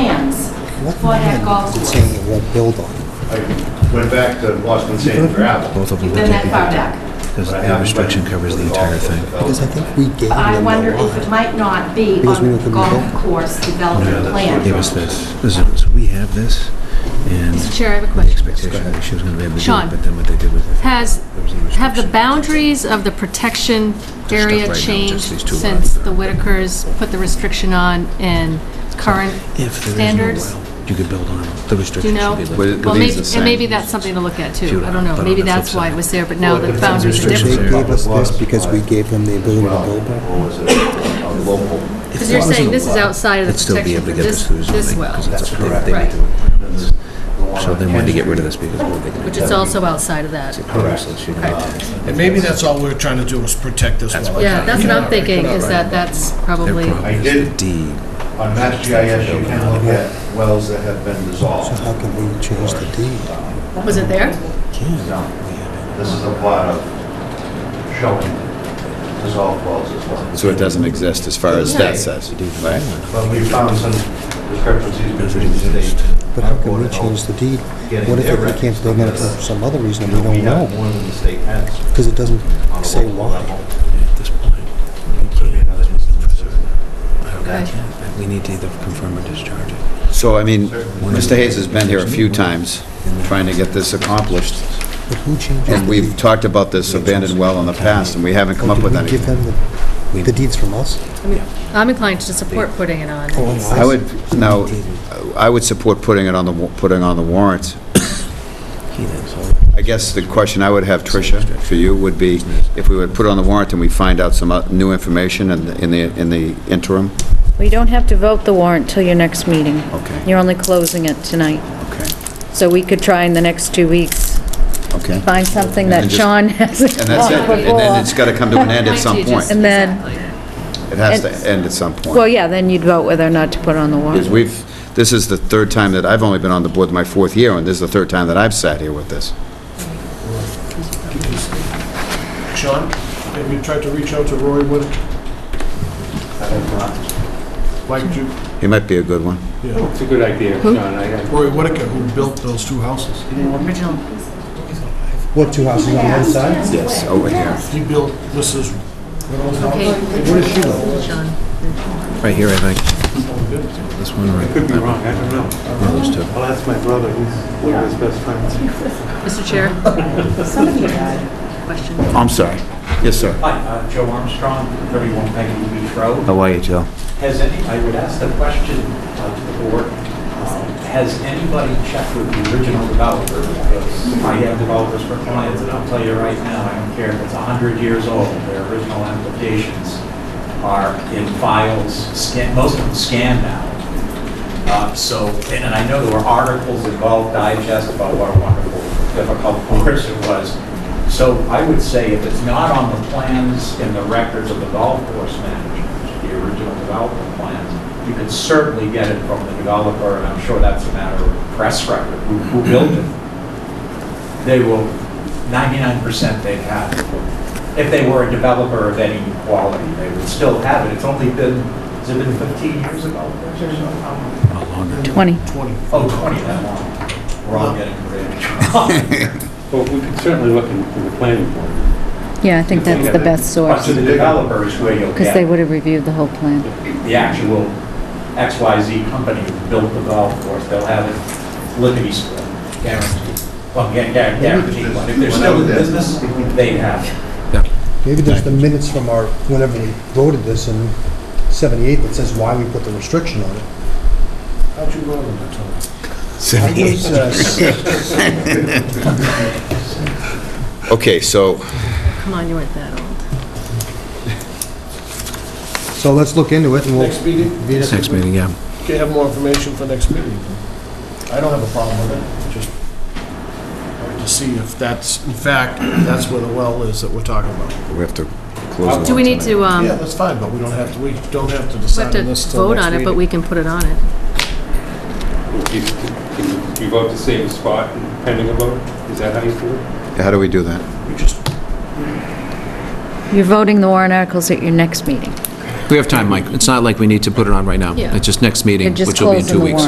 plans What for that golf land course. saying it won't build on? I went back to Boston Sand and Gravel. Both of them You've will been take that the far heat. back. Because but I the haven't restriction been covers to the entire golf course thing. Because I development. think we gave them the But I wonder if it lot. might not be Because we on were the gonna golf go. course Yeah, development that's Give plan. us this. This is- so we have this, and Mr. Chair, I have a the question. expectation that she was going to be able to do Sean. it, but then what they did with it. Has, there was have the restriction. boundaries of the protection right area now, just changed these two since lines. the Whitakers put the restriction on and current If there is no standards? well, You could build on it. The Do you restriction know? should be lifted. Well, these maybe, the and maybe same? that's something to look at Few too. I lines, don't know. but on Maybe the flip that's why side. it was there, but now Well, the if it's boundaries are restrictions They It's different. there. gave us this because we gave them the ability to build on. Or Oh, was it a local? Because you're saying this is outside of the They'd still be protection able for to get this, this through this zoning. well, 'cause it's- they- correct. they meet Right. the requirements. one So on then when they get Henry. rid of this, because what are they going to do? which is also outside of that. Correct. So she didn't- And maybe that's all we're trying to do is protect this well. Yeah, that's what I'm Yeah. thinking, is that that's Their probably, problem I is the did- deed. On Mass GIS, you can look at wells that have been dissolved. So how can we change the deed? was it there? No. This is a plot of showing dissolved wells as well. So it doesn't exist as far as that says, right? But we found some discrepancies between the state. But how can we change the deed? What if we can't build on it for some other reason and we We don't have know? more than the state has Because it doesn't on a say local why. level. At this point, it could be another instance of Okay. that we need to either confirm or discharge it. So, I mean, Mr. Hayes has been here a few times trying to get this accomplished, But who changes the and we've deed? talked about this abandoned well in the past, and we haven't come Or up did with we give anything. them the, the deeds from us? I mean, I'm inclined to support putting it on. Oh, I would, now, I would support putting it on the, wa- putting on the warrant. He then, so I guess the question I would have, Tricia, for you, would be, if we would put it on the warrant and we find out some uh, new information in the- in the, in the interim? We don't have to vote the warrant till your next meeting. Okay. You're only closing it tonight. Okay, So we could try in the next two weeks, okay. find something that And just- Sean hasn't And that's it, done and then it's before. got to come to an end at Might some you point. just- And then- Exactly. It has to end at some point. Well, yeah, then you'd vote whether or not to put on the Because warrant. we've, this is the third time that, I've only been on the board my fourth year, and this is the third time that I've sat here with this. Sean, have you tried to reach out to Roy Wood? I have not. Like you, He might be a good one. It's a good idea, Who? John. I- Roy Whitaker, who built those two houses. Original What, two houses on one side? Yes. Over here. He built Mrs. Reynolds' Okay. house. What does she know? Sean. Right here, I think. This one, I could right? be wrong, I don't know. Yeah, those two. I'll ask my brother, he's one of his best friends. Mr. Chair? Question. I'm sorry. Yes, sir. Hi, uh, Joe Armstrong, 31 Peggy Beach Road. How are you, Joe? Has any, I would ask the question uh, to the board, um, has anybody checked with the original developer? Because I have developers for clients, and I'll tell you right now, I don't care if it's 100 years old, their original applications are in files, scan- most of them scanned now. Uh, So, and and I know there were articles in Golf Digest about what a wonderful, difficult course it was. So I would say if it's not on the plans and the records of the golf course manager, the original development plans, you could certainly get it from the developer, and I'm sure that's a matter of press record, who who built it. They will, 99% they'd have it. If they were a developer of any quality, they would still have it. It's only been, has it been 15 years ago? A longer. 20. Twenty. Oh, 20 that long. We're all getting rich. Well, we could certainly look into the planning board. Yeah, I think that's the best But source, to the developers where you'll because they get would have reviewed the whole plan. the actual XYZ company who built the golf course, they'll have it lickety split, guaranteed. Well, yeah, yeah, guaranteed, but if they're still in business, they have. it. Maybe there's the minutes from our, whenever we voted this in 78 that says why we put the restriction on it. How'd you go with that, Tony? I was, uh, Okay, so, Come on, you weren't that old. So let's look into it and we'll. Next meeting? Be next Next week. meeting, yeah. Okay, have more information for next meeting. I don't have a problem with it, just wanted to see if that's, in fact, that's where the well is that we're talking about. we have to close it. Do we need to, um, Yeah, that's fine, but we don't have to, we don't have to we have decide to on this till vote next on it, but meeting. we can put it on it? If you- if You vote to save a spot and pending a vote? Is that how you do it? How do we do that? We just You're voting the warrant articles at your next meeting. We have time, Mike. It's not like we need to put it on right now. Yeah. It's just next meeting, You're just which will be in closing two the weeks.